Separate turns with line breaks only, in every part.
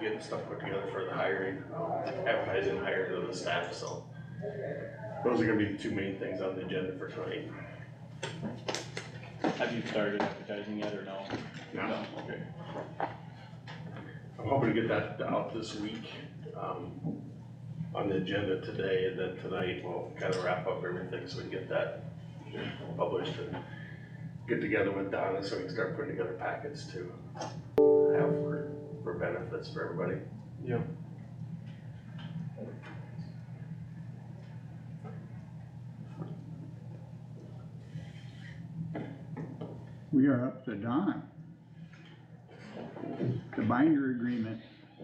getting stuff put together for the hiring, um, advertising, hiring of the staff, so. Those are gonna be the two main things on the agenda for tonight.
Have you started advertising yet or no?
No.
Okay.
I'm hoping to get that out this week, um, on the agenda today, and then tonight we'll kind of wrap up everything so we can get that published and get together with Donna so we can start putting together packets to have for, for benefits for everybody.
Yep.
We are up to Don. The binder agreement,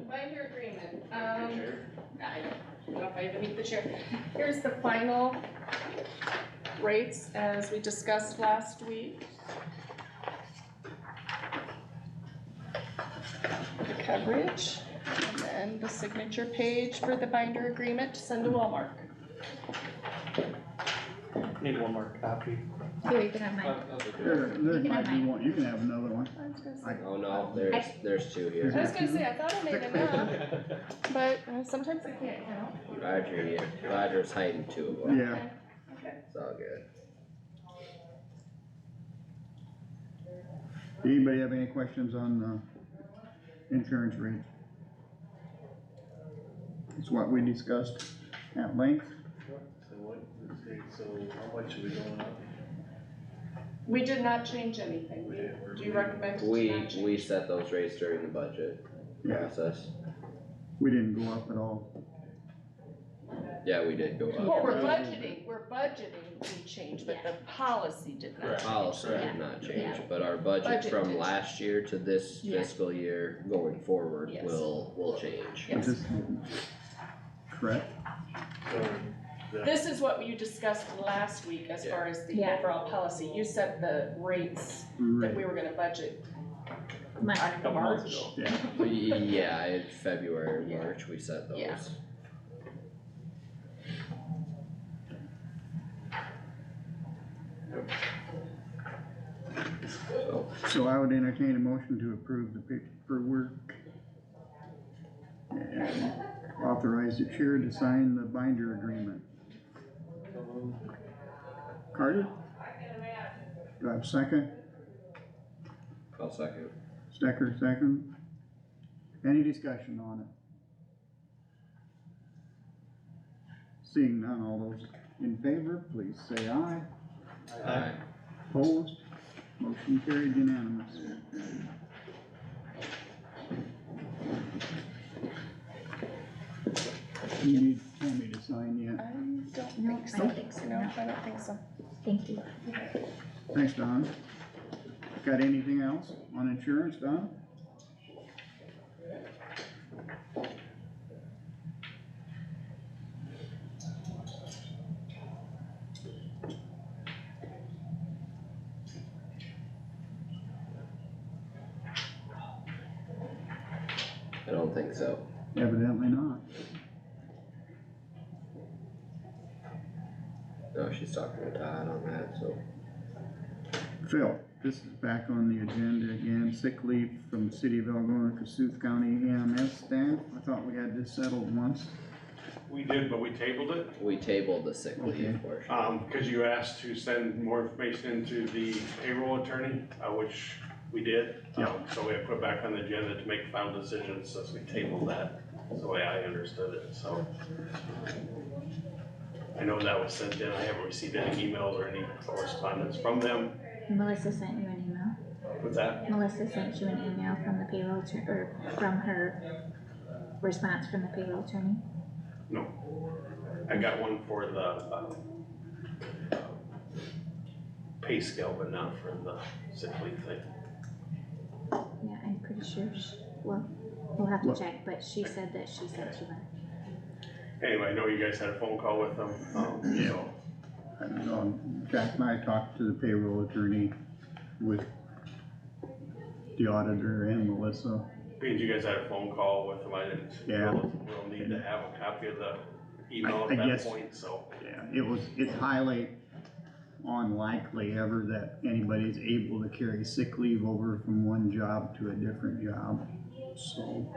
Binder agreement, um, I don't know if I even need the chair. Here's the final rates as we discussed last week. The coverage, and then the signature page for the binder agreement to send to Walmart.
Need one more copy.
Here, you can have mine.
there, there
You can
might
have
be
mine.
one, you can have another one.
I was gonna say-
Oh no, there's, there's two
Is
I
here.
was gonna say, I thought I made enough, but uh, sometimes I can't count.
Roger, yeah, Roger's hiding two of them.
Yeah,
Okay.
It's all good.
anybody have any questions on the insurance rate? It's what we discussed at length,
So what, so how much are we going up?
We did not change anything.
We didn't work.
Do you recommend to
We,
not change?
we set those rates during the budget
Yeah.
process.
we didn't go up at all.
Yeah, we did go
Well,
up.
we're budgeting, we're budgeting, we changed, but the policy did not.
Correct.
Policy did not change, but our budget
Budget
from
did.
last year to this
Yeah.
fiscal year going forward
Yes.
will, will change.
Yes.
Is this correct?
So the
This is what you discussed last week as
Yeah.
far as the
Yeah.
overall policy. You set the rates that
Right,
we were gonna budget on
Mine.
Couple months
March.
ago.
yeah,
Yeah, in February,
Yeah.
March, we set those.
Yeah.
So,
so I would entertain a motion to approve the paperwork. And authorize the chair to sign the binder agreement. Carter? Do I have a second?
I'll second.
Stecker, second. Any discussion on it? Seeing none, all those in favor, please say aye.
Aye.
Opposed? Motion carried unanimous. You need Tammy to sign
I
yet.
don't think
I
so.
don't think so,
No,
no.
I don't think so.
Thank you.
Thanks, Don. Got anything else on insurance, Don?
I don't think so.
Evidently not.
No, she's talking to Todd on that, so.
Phil, this is back on the agenda again, sick leave from the city of Algonah, Cassuth County EMS staff. I thought we had this settled once.
We did, but we tabled it,
We tabled the sick
Okay.
leave portion.
um, cause you asked to send more information into the payroll attorney, uh, which we did.
Yeah.
Um, So we have put back on the agenda to make final decisions, since we tabled that, is the way I understood it, so. I know that was sent in, I haven't received any emails or any correspondence from them
Melissa sent you an email.
with that.
Melissa sent you an email from the payroll attorney, or from her response from the payroll attorney.
I got one for the, um, pay scale, but not for the sick leave thing.
Yeah, I'm pretty sure she, well, we'll have to
Well-
check, but she said that she sent you one.
Anyway, I know you guys had a phone call with them,
Oh.
um, so,
Um, Jack and I talked to the payroll attorney with the auditor and Melissa.
being you guys had a phone call with them, I didn't.
Yeah.
We'll need to have a copy of the email
I- I
at that
guess-
point, so.
Yeah, it was, it's highly unlikely ever that anybody's able to carry sick leave over from one job to a different job, so.